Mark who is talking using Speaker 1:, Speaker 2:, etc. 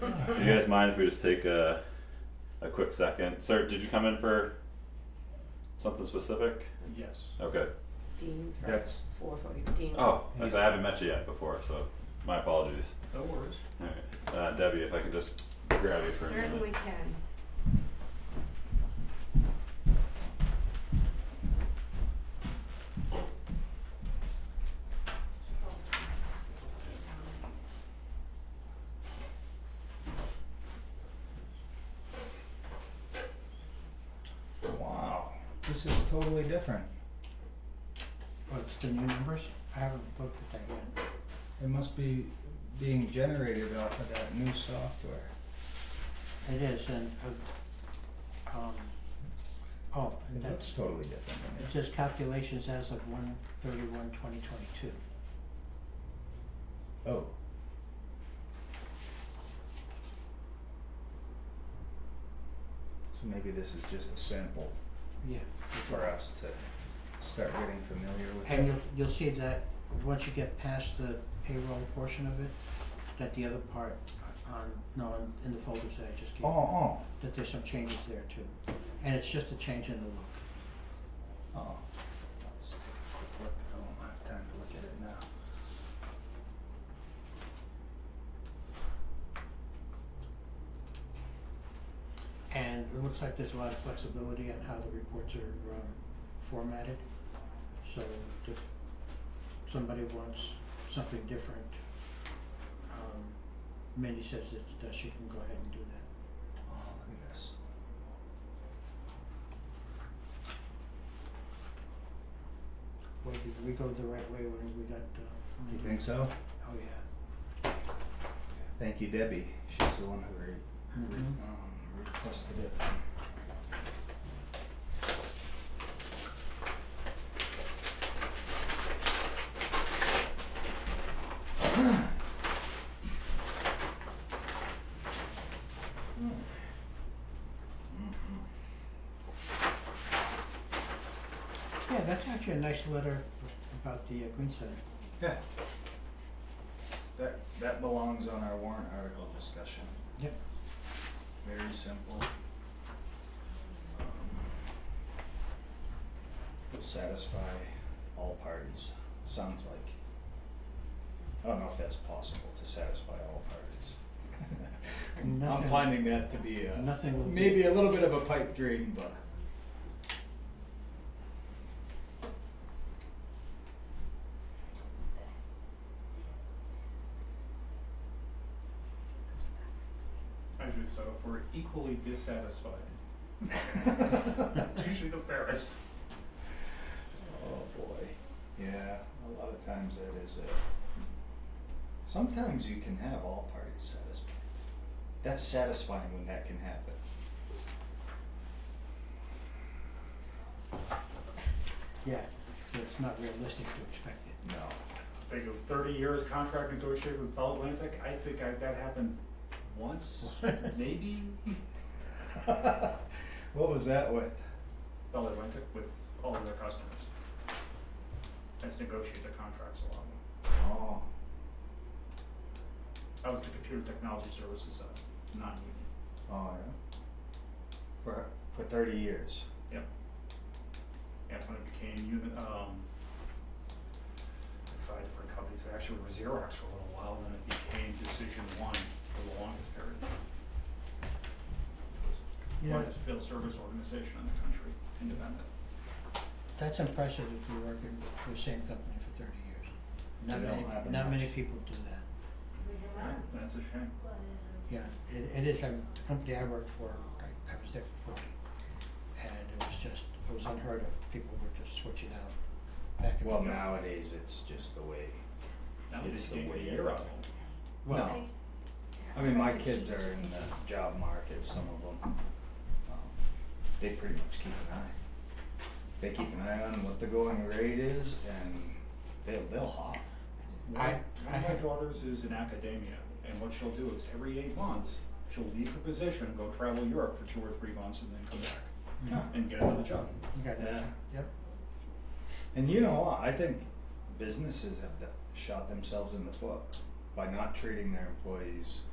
Speaker 1: Do you guys mind if we just take a, a quick second? Sir, did you come in for something specific?
Speaker 2: Yes.
Speaker 1: Okay.
Speaker 3: Dean for
Speaker 4: That's,
Speaker 3: four forty, Dean.
Speaker 1: Oh, I
Speaker 4: He's-
Speaker 1: haven't met you yet before, so my apologies.
Speaker 2: No worries.
Speaker 1: All right. Uh, Debbie, if I could just grab you for a minute.
Speaker 3: Certainly can.
Speaker 4: wow, this is totally different.
Speaker 5: What's the new numbers? I haven't looked at that yet.
Speaker 4: It must be being generated off of that new software.
Speaker 5: It is, and, uh, um, oh, and
Speaker 4: It
Speaker 5: that's,
Speaker 4: looks totally different than
Speaker 5: it
Speaker 4: it.
Speaker 5: says calculations as of one thirty-one, twenty twenty-two.
Speaker 4: Oh. So maybe this is just a sample
Speaker 5: Yeah.
Speaker 4: for us to start getting familiar with
Speaker 5: And
Speaker 4: it. Oh,
Speaker 5: you'll, you'll see that once you get past the payroll portion of it, that the other part uh, on, no, in- in the folders that I just gave,
Speaker 4: Oh,
Speaker 5: you,
Speaker 4: oh,
Speaker 5: that there's some changes there too. And it's just a change in the look.
Speaker 4: oh. Let's take a quick look, I don't have time to look at it now.
Speaker 5: And it looks like there's a lot of flexibility on how the reports are um formatted. So if somebody wants something different, um Mindy says that that she can go ahead and do that.
Speaker 4: Oh, look at this.
Speaker 5: Wait, did we go the right way when we got uh
Speaker 4: You think so?
Speaker 5: Oh yeah.
Speaker 4: Thank you, Debbie. She's the one who re-
Speaker 5: Mhm.
Speaker 4: re- um, requested it.
Speaker 5: Yeah, that's actually a nice letter about the uh Green Center.
Speaker 4: Yeah. That, that belongs on our warrant article discussion.
Speaker 5: Yep.
Speaker 4: Very simple. Um, Will satisfy all parties, sounds like. I don't know if that's possible to satisfy all parties. I'm
Speaker 5: Nothing-
Speaker 4: finding that to be a,
Speaker 5: Nothing will be.
Speaker 4: maybe a little bit of a pipe dream, but.
Speaker 2: Usually so, if we're equally dissatisfied, it's usually the fairest.
Speaker 4: Oh boy. Yeah, a lot of times that is it. Sometimes you can have all parties satisfied. That's satisfying when that can happen.
Speaker 5: Yeah, it's not realistic to expect it.
Speaker 4: No.
Speaker 2: Think of thirty years contract negotiated with Bell Atlantic, I think I, that happened once, maybe?
Speaker 4: what was that with?
Speaker 2: Bell Atlantic with all of their customers. Has negotiated the contracts along.
Speaker 4: Oh,
Speaker 2: I was the computer technology services side, not union.
Speaker 4: oh yeah. For for thirty years.
Speaker 2: And when it became union, um, five different companies, it actually was Xerox for a little while, then it became Decision One for the longest period. Which was
Speaker 5: Yeah,
Speaker 2: largest field service organization in the country, independent.
Speaker 5: that's impressive if you're working with the same company for thirty years. Not
Speaker 4: They don't
Speaker 5: many,
Speaker 4: happen
Speaker 5: not many
Speaker 4: much.
Speaker 5: people do that.
Speaker 2: Right, That's a shame.
Speaker 5: Yeah, it, it is, um, the company I worked for, I, I was there for forty, and it was just, it was unheard of, people were just switching out back and
Speaker 4: Well,
Speaker 5: forth.
Speaker 4: nowadays it's just the way.
Speaker 2: Now we
Speaker 4: It's
Speaker 2: just
Speaker 4: the
Speaker 2: can't
Speaker 4: way
Speaker 2: get
Speaker 4: it
Speaker 2: a year out
Speaker 4: is.
Speaker 2: of them.
Speaker 5: Well,
Speaker 4: no. I mean, my kids are in the job market, some of them. Um, They pretty much keep an eye. They keep an eye on what the going rate is and they'll, they'll hop.
Speaker 5: I-
Speaker 2: One
Speaker 5: I
Speaker 2: of my
Speaker 5: had-
Speaker 2: daughters is in academia, and what she'll do is every eight months, she'll leave her position, go travel Europe for two or three months, and then come back
Speaker 4: Huh.
Speaker 2: and get another job.
Speaker 5: Mm-hmm. you got that,
Speaker 4: Yeah.
Speaker 5: yep,
Speaker 4: And you know what? I think businesses have th- shot themselves in the foot by not treating their employees um,